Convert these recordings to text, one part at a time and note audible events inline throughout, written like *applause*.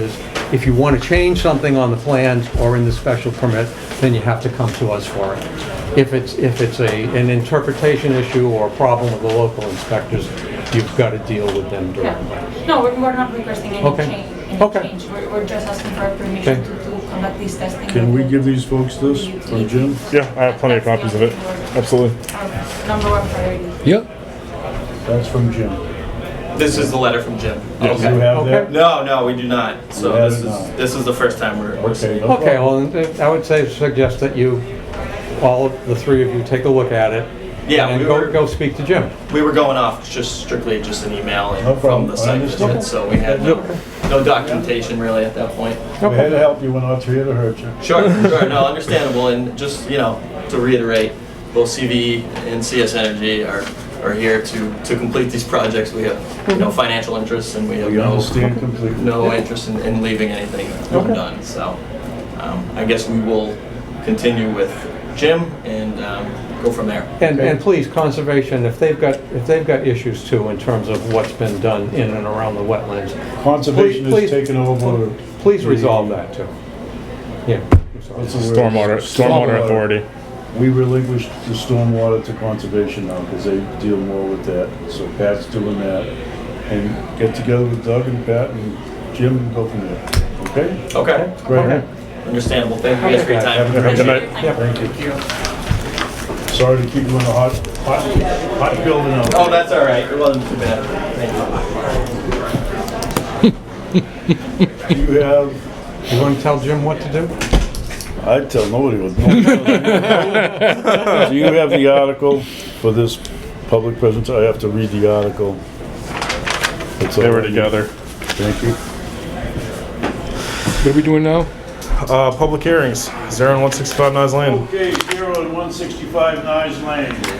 is if you want to change something on the plans or in the special permit, then you have to come to us for it. If it's, if it's a, an interpretation issue or a problem with the local inspectors, you've got to deal with them directly. Yeah. No, we're, we're not requesting any Okay. change, Okay. any change. We're, we're just asking for permission Okay. to to conduct this testing. Can we with give these folks this from Jim? Yeah, I have plenty of copies of it. Absolutely. our Number one priority. Yep. That's from Jim. This is the letter from Jim. Do you have that? No, no, we do not. So We have this is not. this is the first time we're. we're Okay. seeing no Okay, problem. well, and I would say, suggest that you, all of the three of you, take a look at it. Yeah, And we go, were- go speak to Jim. it. We were going off just strictly just an email and No from problem. the I site understand. visit, so we had no, no documentation really at that point. We're here to help you, we're not here to hurt you. Sure, sure, no, understandable, and just you know to reiterate, both CV and CS Energy are are here to to complete these projects. We have you know financial interests and we have We no understand completely. no interest in, in leaving anything undone. So um, I guess we will continue with Jim and um, go from there. And, and please, conservation, if they've got, if they've got issues too in terms of what's been done in and around the wetlands, Conservation Please- please- has taken over. please the- resolve that too. Yeah. I'm sorry. What's the word? Stormwater, stormwater authority. We relinquished the stormwater to conservation now because they deal more with that. So Pat's doing that. And get together with Doug and Pat and Jim and go from there. Okay? Okay, Great. understandable. Thank you guys for your time. Have a Good good night. Thank you. Thank you. Sorry to keep you in the hot, hot, hot building out there. Oh, that's all right. It wasn't too bad. Thank you. Do you have, You want to tell Jim what to do? I tell nobody what. *laughs* Do you have the article for this public presence? I have to read the article. It's They were already- together. Thank you. What are we doing now? Uh, public hearings, zero and one sixty-five Nice Lane. Okay, zero and one sixty-five Nice Lane. I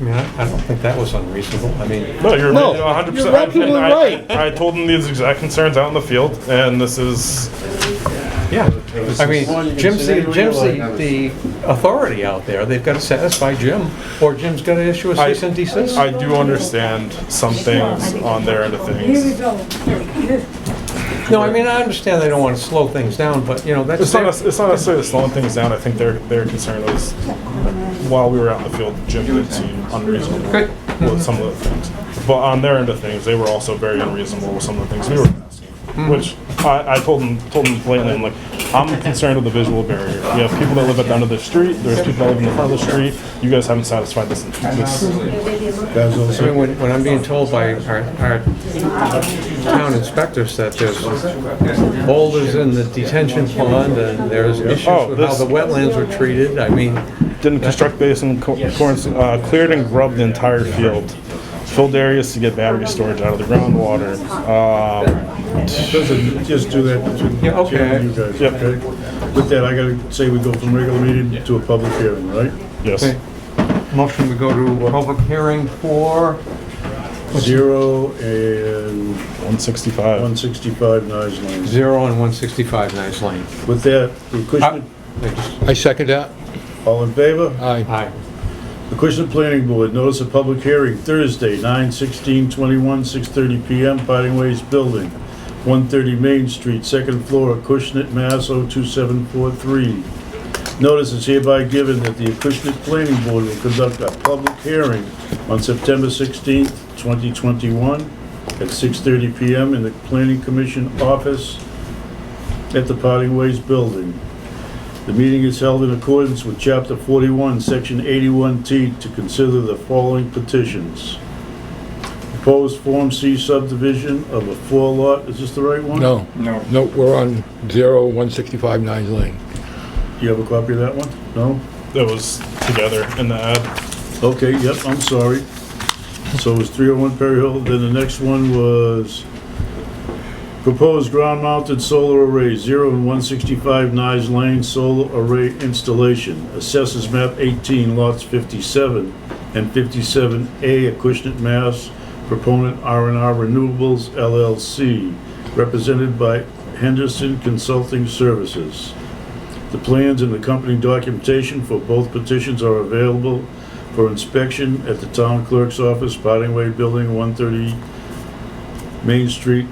mean, I I don't think that was unreasonable. I mean, No, you're No, one hundred you're percent. absolutely right. I told them these exact concerns out in the field, and this is yeah. I mean, Well, you can Jim's, say the- that we Jim's like- the, the authority out there. They've got to satisfy Jim, or Jim's got to issue a I- cease and desist. I do understand some things on their end of things. No, I mean, I understand they don't want to slow things down, but, you know, that's, It's not, their- nec- it's not necessarily slowing things down. I think their their concern was while we were out in the field, Jim did seem unreasonable Good. with some of the things. But on their end of things, they were also very unreasonable with some of the things we were asking. Which I, I told them told them blatantly, I'm like, I'm concerned with the visual barrier. We have people that live at the end of the street. There's people that live in the front of the street. You guys haven't satisfied this. this Guys, I mean, also, when, when I'm being told by our, our town inspectors that there's boulders in the detention pond, and there's issues Oh, with how this- the wetlands were treated, I mean, Didn't construct basin, co- corns- uh, cleared and grubbed the entire field. Filled areas to get battery storage out of the groundwater. Um, listen, just do that between Yeah, okay. Jim and you guys, Yep. okay? With that, I gotta say we go from regular meeting to a public hearing, right? yes. okay. Motion, we go to a public hearing for, Zero and 165. one sixty-five Nice Lane. Zero and 165 Nice Lane. With that, the Uh, Acushnet, I just- I second that. all in favor? Aye. Aye. The Acushnet Planning Board, notice of public hearing Thursday, 9/16/21, 6:30 PM, Parting Ways Building, 130 Main Street, second floor, Acushnet, Mass. 02743. Notice is hereby given that the Acushnet Planning Board will conduct a public hearing on September 16th, 2021, at 6:30 PM in the Planning Commission office at the Parting Ways Building. The meeting is held in accordance with Chapter 41, Section 81T, to consider the following petitions. Proposed Form C subdivision of a four lot, is this the right one? No. No. No, we're on zero one sixty-five Nines Lane. Do you have a copy of that one? No? It was together in the ad. Okay, yep, I'm sorry. So it was 301 Perry Hill, then the next one was proposed ground-mounted solar array, 0 and 165 Nice Lane solar array installation, assesses map 18, lots 57 and 57A, Acushnet, Mass. Proponent r and R Renewables LLC, represented by Henderson Consulting Services. The plans and accompanying documentation for both petitions are available for inspection at the town clerk's office, Potting Way Building, 130 Main Street